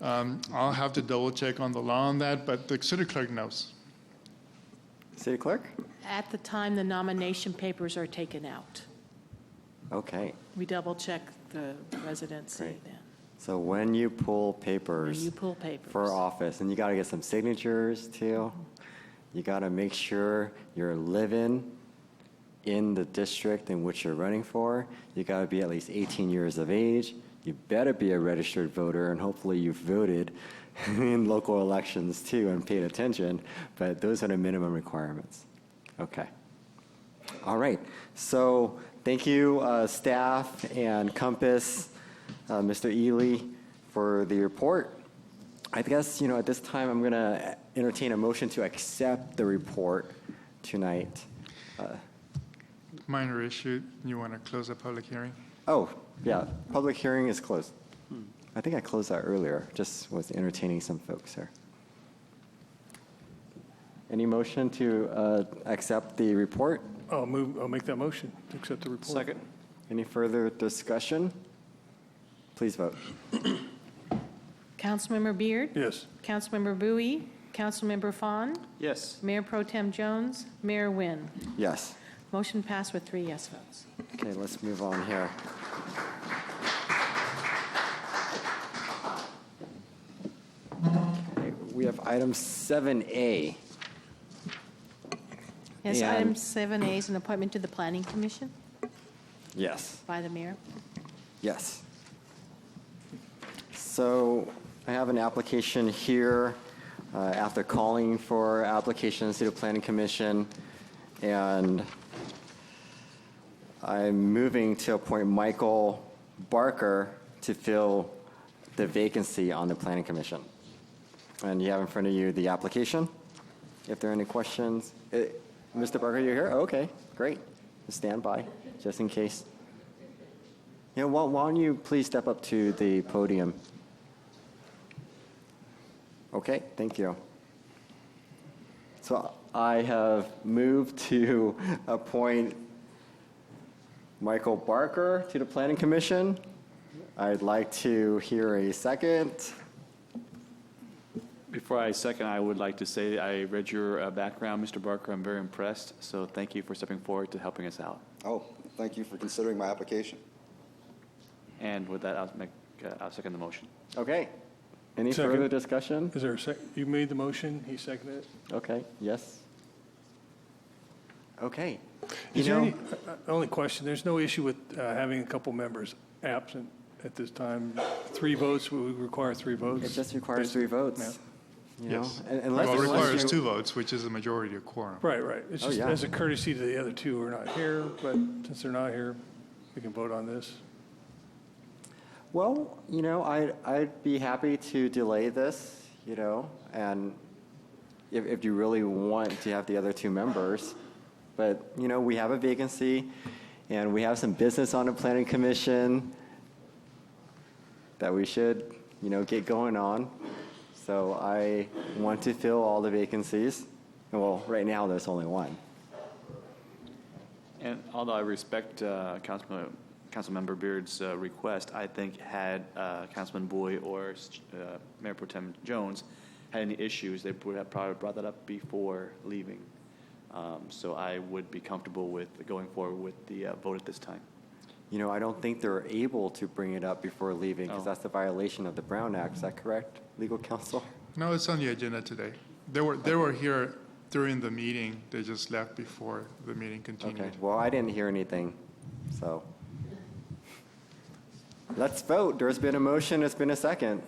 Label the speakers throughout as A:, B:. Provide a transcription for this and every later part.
A: Um, I'll have to double check on the law on that, but the city clerk knows.
B: City Clerk?
C: At the time the nomination papers are taken out,
B: Okay,
C: we double-check the residency
B: Great.
C: then.
B: so when you pull
C: When
B: papers
C: you pull papers.
B: for office, and you gotta get some signatures too, you gotta make sure you're living in the district in which you're running for, you gotta be at least 18 years of age, you better be a registered voter, and hopefully you've voted in local elections too and paid attention, but those are the minimum requirements. Okay. All right. So thank you, uh, staff and Compass, uh, Mr. Ely, for the report. I guess, you know, at this time, I'm going to entertain a motion to accept the report tonight. Uh,
A: Minor issue, you want to close the public hearing?
B: Oh, yeah, public hearing is closed. I think I closed that earlier, just was entertaining some folks there. Any motion to uh, accept the report?
D: I'll move, I'll make that motion to accept the report. Second.
B: Any further discussion? Please vote.
C: Councilmember Beard?
D: Yes.
C: Councilmember Bowie? Councilmember Fawn?
D: Yes.
C: Mayor Pro Tem Jones? Mayor Wynne?
B: Yes.
C: Motion passed with three yes votes.
B: Okay, let's move on here. Okay, We have item 7A.
C: Yes,
B: And-
C: item 7A is an appointment to the Planning Commission
B: Yes.
C: by the mayor.
B: Yes. So I have an application here uh, after calling for applications to the Planning Commission, and I'm moving to appoint Michael Barker to fill the vacancy on the Planning Commission. And you have in front of you the application. If there are any questions, eh, Mr. Barker, you're here? Okay, great. Stand by, just in case. Yeah, why why don't you please step up to the podium? Okay, thank you. So I have moved to appoint Michael Barker to the Planning Commission. I'd like to hear a second.
E: Before I second, I would like to say I read your uh, background, Mr. Barker. I'm very impressed, so thank you for stepping forward to helping us out.
F: Oh, thank you for considering my application.
E: And with that, I'll make, uh, I'll second the motion.
B: Okay. Any
D: Second.
B: further discussion?
D: Is there a sec, you made the motion, he seconded it?
B: Okay, yes. Okay. You
D: Is there
B: know-
D: any, uh, uh, only question, there's no issue with uh, having a couple members absent at this time. Three votes, we require three votes.
B: It just requires three votes. you know?
A: Yes.
B: Un- Unless,
A: Well, it
B: unless
A: requires
B: you-
A: two votes, which is a majority of quorum.
D: Right, right. It's
B: Oh,
D: just
B: yeah.
D: as a courtesy to the other two who are not here, but since they're not here, we can vote on this.
B: Well, you know, I'd, I'd be happy to delay this, you know, and if, if you really want to have the other two members. But, you know, we have a vacancy and we have some business on the planning commission that we should, you know, get going on. So I want to fill all the vacancies. Well, right now, there's only one.
E: And although I respect uh, Councilman, Councilmember Beard's uh, request, I think had uh, Councilman Boy or uh, Mayor Pro Tem Jones had any issues, they would have probably brought that up before leaving. Um, So I would be comfortable with going forward with the uh, vote at this time.
B: You know, I don't think they're able to bring it up before leaving because
E: Oh.
B: that's a violation of the Brown Act. Is that correct, legal counsel?
A: No, it's on the agenda today. They were, they were here during the meeting, they just left before the meeting
B: Okay,
A: continued.
B: well, I didn't hear anything, so. Let's vote. There's been a motion, it's been a second.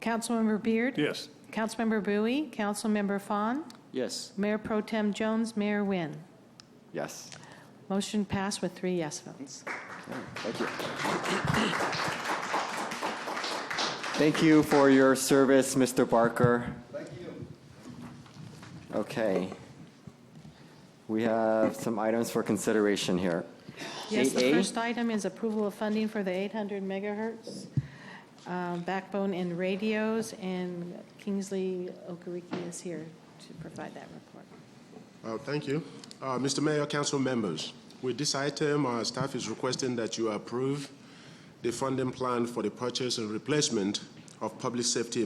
C: Councilmember Beard?
D: Yes.
C: Councilmember Bowie? Councilmember Fawn?
E: Yes.
C: Mayor Pro Tem Jones? Mayor Wynne?
B: Yes.
C: Motion passed with three yes votes.
B: Thank you. Thank you for your service, Mr. Barker. Thank you. Okay. We have some items for consideration here.
C: Yes, the
B: 8A?
C: first item is approval of funding for the 800 megahertz um, backbone and radios, and Kingsley Okereke is here to provide that report.
G: Uh, Thank you. Uh, Mr. Mayor, council members, with this item, our staff is requesting that you approve the funding plan for the purchase and replacement of Public Safety